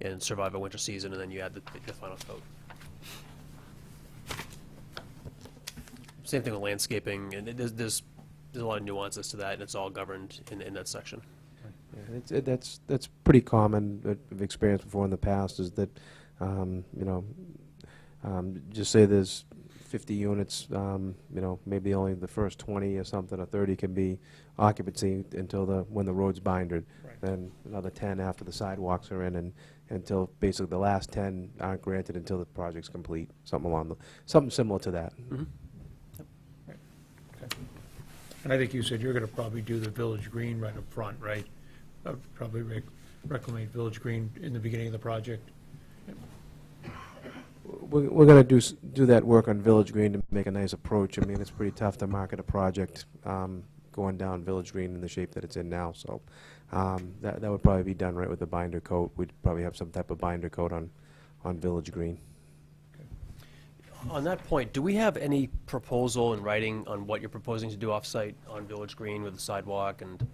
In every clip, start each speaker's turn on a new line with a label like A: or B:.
A: and survive a winter season, and then you add the, the final coat. Same thing with landscaping, and it- there's, there's, there's a lot of nuances to that, and it's all governed in, in that section.
B: Yeah, It's, it, that's, that's pretty common, that I've experienced before in the past, is that, um, you know, um, just say there's fifty units, um, you know, maybe only the first twenty or something, or thirty can be occupancy until the, when the road's bindered.
C: Right.
B: Then another ten after the sidewalks are in, and until, basically, the last ten aren't granted until the project's complete, something along the, something similar to that.
A: Mm-hmm.
C: And I think you said you're gonna probably do the Village Green right up front, right? Uh, Probably rec- reclaim Village Green in the beginning of the project.
B: We're, we're gonna do, s- do that work on Village Green to make a nice approach. I mean, it's pretty tough to market a project, um, going down Village Green in the shape that it's in now, so, um, that, that would probably be done right with the binder coat. We'd probably have some type of binder coat on, on Village Green.
A: On that point, do we have any proposal in writing on what you're proposing to do off-site on Village Green with the sidewalk and?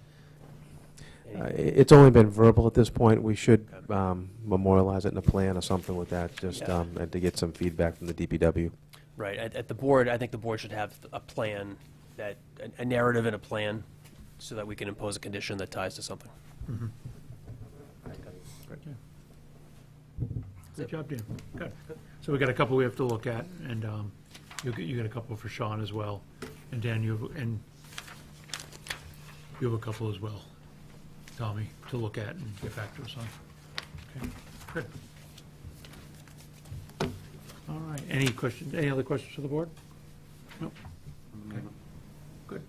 B: Uh, i- it's only been verbal at this point. We should, um, memorialize it in a plan or something with that, just,
A: Yeah.
B: um, and to get some feedback from the DPW.
A: Right, at, at the board, I think the board should have a plan that, a- a narrative and a plan, so that we can impose a condition that ties to something.
C: Good job, Dan. Good. So we got a couple we have to look at, and um, you get, you got a couple for Sean as well. And Dan, you, have- and you have a couple as well, Tommy, to look at and get back to us on. Okay, good. All right, any questions, any other questions for the board? Nope. Okay, good.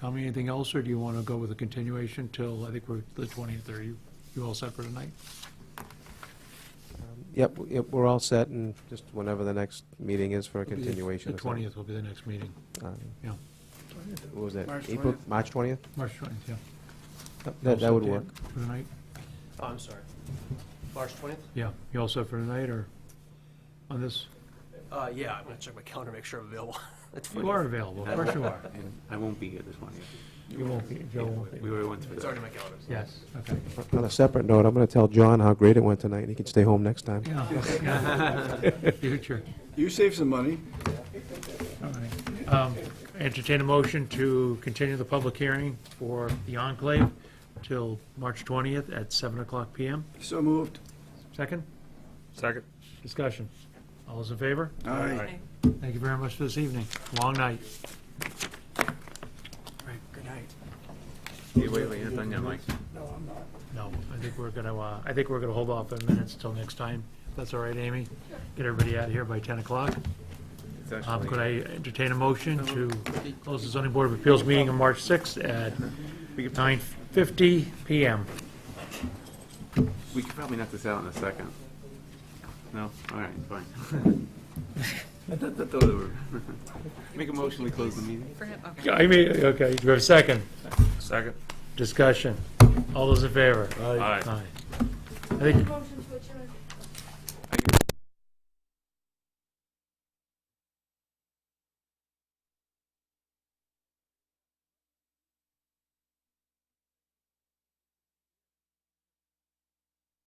C: Tommy, anything else, or do you want to go with a continuation till, I think we're the 20th, or you, you all set for tonight?
B: Yep, w- yep, we're all set, and just whenever the next meeting is for a continuation.
C: The
B: or something.
C: 20th will be the next meeting,
B: Uh,
C: yeah.
B: What was that?
D: March
B: April,
D: 20th.
B: March twentieth?
C: March 20th, yeah.
B: That, that
C: Also,
B: would
C: Dan,
B: work.
C: For tonight?
A: Oh, I'm sorry. March twentieth?
C: Yeah. You all set for tonight or on this?
A: Uh, yeah, I'm gonna check my calendar, make sure I'm available. That's
C: You are available, of course you are.
D: And I won't be here this one.
C: You won't be, Joe won't
D: We
C: be.
D: already went through
A: It's
D: that.
A: already in my calendar. so-
C: Yes, okay.
B: On a separate note, I'm going to tell John how great it went tonight, and he can stay home next time.
C: Yeah, yeah. Future,
E: You save some money.
C: all right. Um, Entertain a motion to continue the public hearing for the enclave till March 20th at 7 o'clock PM.
E: So moved.
C: Second,
F: Second.
C: discussion. All those in favor?
E: Aye.
C: Thank you very much for this evening. Long night. Right, good night.
F: Wait, wait, you're not done yet, Mike.
C: No, I think we're gonna, uh, I think we're gonna hold off on minutes till next time. If That's all right, Amy? Get everybody out of here by 10 o'clock.
F: It's
C: Um,
F: actually-
D: Uh,
C: Could I entertain a motion to close the zoning board of appeals meeting on March 6th at 9:50 PM?
D: We could probably knock this out in a second. No? All right, fine. I thought that thought it were- Make a motion, we close the meeting.
G: For him, okay.
C: I mean, okay, do we have a second?
F: Second.
C: Discussion. All those in favor?
F: Aye.
C: Aye. I think,
H: Motion